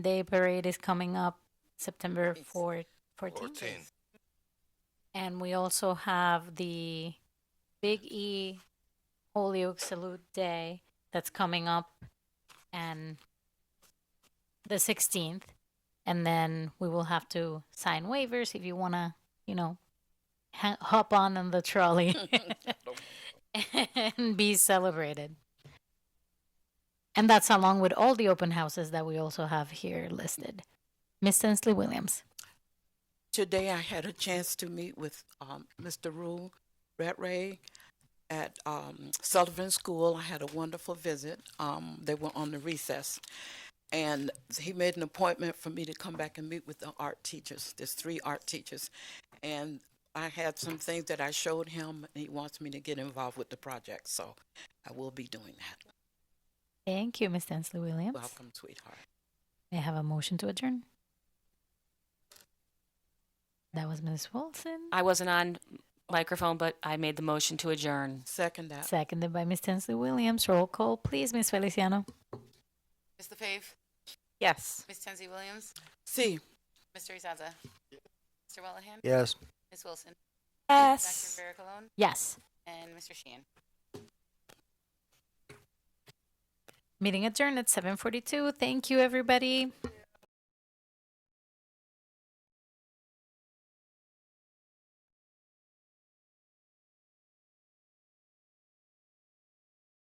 Day parade is coming up September Fourteenth. 4th, 14. 14th. And we also have the Big E Holyoke Salute Day that's coming up and the 16th. And then we will have to sign waivers if you want to, you know, ha- hop on in the trolley and be celebrated. And that's along with all the open houses that we also have here listed. Miss Sensley Williams. Today I had a chance to meet with um, Mr. Rule Rattray at um, Sullivan School. I had a wonderful visit. Um, they were on the recess. And he made an appointment for me to come back and meet with the art teachers. There's three art teachers. And I had some things that I showed him, and he wants me to get involved with the project. So I will be doing that. Thank you, Miss Sensley Williams. Welcome, sweetheart. May I have a motion to adjourn? That was Ms. Wilson, I wasn't on microphone, but I made the motion to adjourn. Second that. seconded by Miss Sensley Williams. Roll call, please, Miss Feliciano. Ms. LaFave, Yes. Ms. Tenzie Williams, See, Mr. Izaza, Mr. Wellahan, Yes. Ms. Wilson, Yes. Dr. Vera Colon, Yes. and Mr. Sheehan. Meeting adjourned at 7:42. Thank you, everybody.